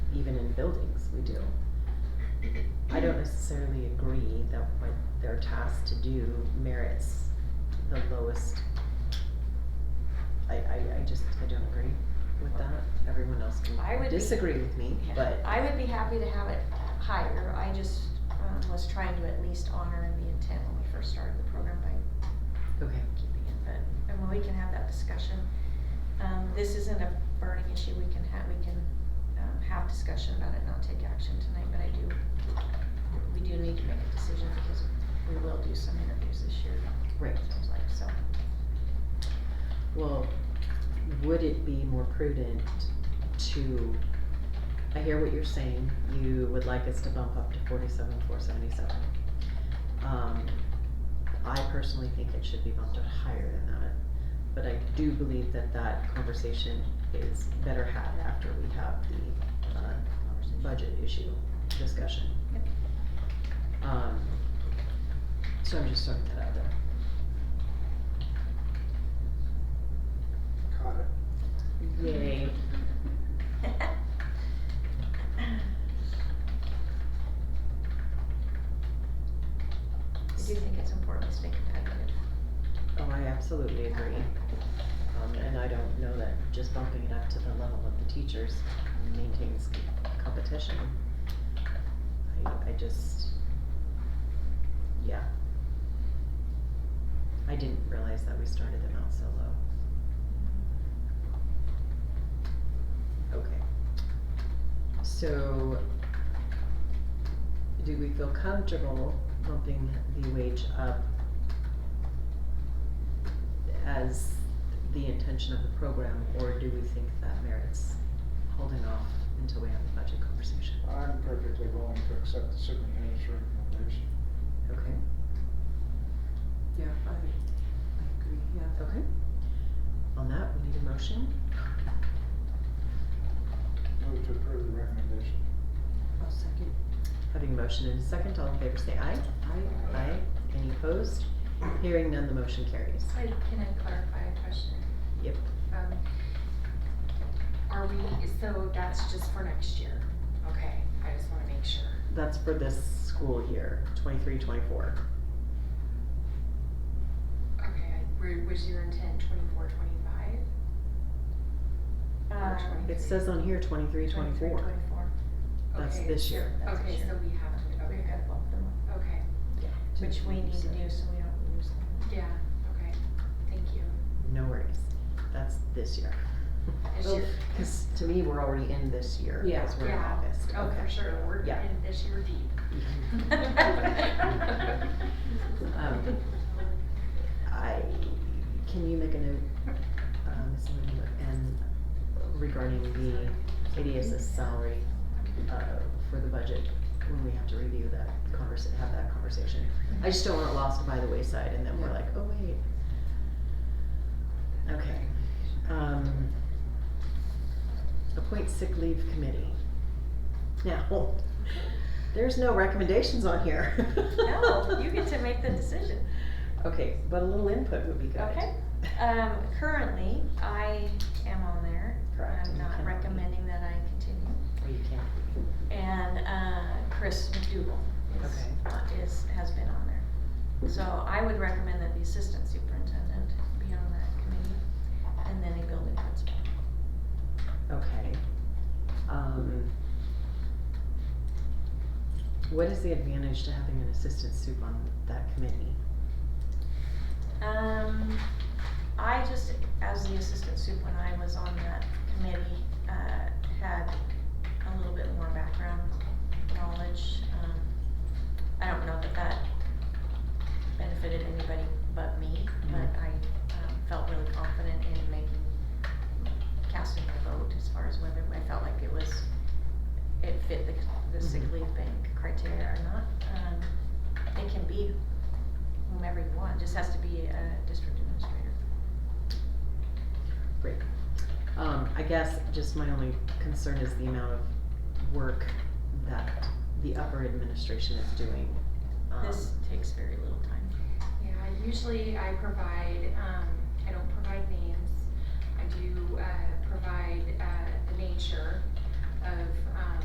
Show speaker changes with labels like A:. A: the buildings, we do. I don't necessarily agree that what they're tasked to do merits the lowest. I, I, I just, I don't agree with that, everyone else
B: I
A: can
B: would be-
A: disagree with me,
B: Yeah.
A: but.
B: I would be happy to have it higher, I just, um, was trying to at least honor the intent when we first started the program by
A: Okay.
B: keeping it, but, I mean, we can have that discussion. Um, this isn't a burning issue, we can have, we can, um, have discussion about it, not take action tonight, but I do, we do need to make a decision because we will do some interviews this year,
A: Right,
B: it seems like, so.
A: well, would it be more prudent to, I hear what you're saying, you would like us to bump up to forty-seven, four seventy-seven. Um, I personally think it should be bumped up higher than that, but I do believe that that conversation is better had after we have the, uh, budget issue discussion.
B: Yep.
A: Um, so I'm just throwing that out there.
C: Caught it.
A: Yay.
B: I do think it's important to make it competitive.
A: Oh, I absolutely agree. Um, and I don't know that just bumping it up to the level of the teachers maintains c- competition. I, I just, yeah. I didn't realize that we started them out so low. Okay. So, do we feel comfortable bumping the wage up as the intention of the program, or do we think that merits holding off until we have the budget conversation?
C: I'm perfectly willing to accept the superintendent's recommendation.
A: Okay,
D: Yeah, I, I agree, yeah.
A: okay. On that, we need a motion.
C: Move to approve the recommendation.
D: I'll second.
A: Having a motion and a second, all in favor say aye.
D: I,
A: Aye. Any opposed? Hearing none, the motion carries.
E: I, can I clarify a question?
A: Yep.
E: Um, Are we, so that's just for next year? Okay, I just wanna make sure.
A: That's for this school year, twenty-three, twenty-four.
E: Okay, I- were- was your intent twenty-four, twenty-five?
B: Um,
A: It says on here twenty-three,
E: Twenty-three,
A: twenty-four.
E: twenty-four.
A: That's
E: Okay,
A: this year.
B: That's
E: Okay,
B: this
E: so
B: year.
E: we have to,
B: We've
E: okay,
B: gotta bump them up,
E: okay,
A: Yeah.
B: which we need to do so we don't lose them.
E: yeah, okay, thank you.
A: No worries. That's this year.
E: This year.
A: Because to me, we're already in this year,
D: Yeah.
A: because we're in
E: Yeah.
A: August.
E: Oh, for sure, we're
A: Yeah.
E: in this year deep.
A: Um, I, can you make a note, uh, Ms. Lindberg, and regarding the ADS's salary, uh, for the budget, when we have to review that conversa- have that conversation? I just don't want it lost by the wayside, and then we're
D: Yeah.
A: like, oh, wait. Okay, um, appoint sick leave committee. Now, there's no recommendations on here.
B: No, you get to make the decision.
A: Okay, but a little input would be good.
B: Okay. Um, currently, I am on there.
A: Correct,
B: I'm
A: and you
B: not
A: cannot be.
B: recommending that I continue.
A: Or you can't.
B: And, uh, Chris McDougal is,
A: Okay.
B: on- is, has been on there. So I would recommend that the assistant superintendent be on that committee, and then a building principal.
A: Okay. Um, what is the advantage to having an assistant soup on that committee?
B: Um, I just, as the assistant soup, when I was on that committee, uh, had a little bit more background knowledge. Um, I don't know that that benefited anybody but me, but
A: Mhm.
B: I, um, felt really confident in making, casting my vote as far as whether I felt like it was, it fit the, the sick
A: Mhm.
B: leave bank criteria or not. Um, it can be whomever you want, just has to be a district administrator.
A: Great. Um, I guess just my only concern is the amount of work that the upper administration is doing. Um,
B: This takes very little time.
E: Yeah, usually I provide, um, I don't provide names. I do, uh, provide, uh, the nature of, um,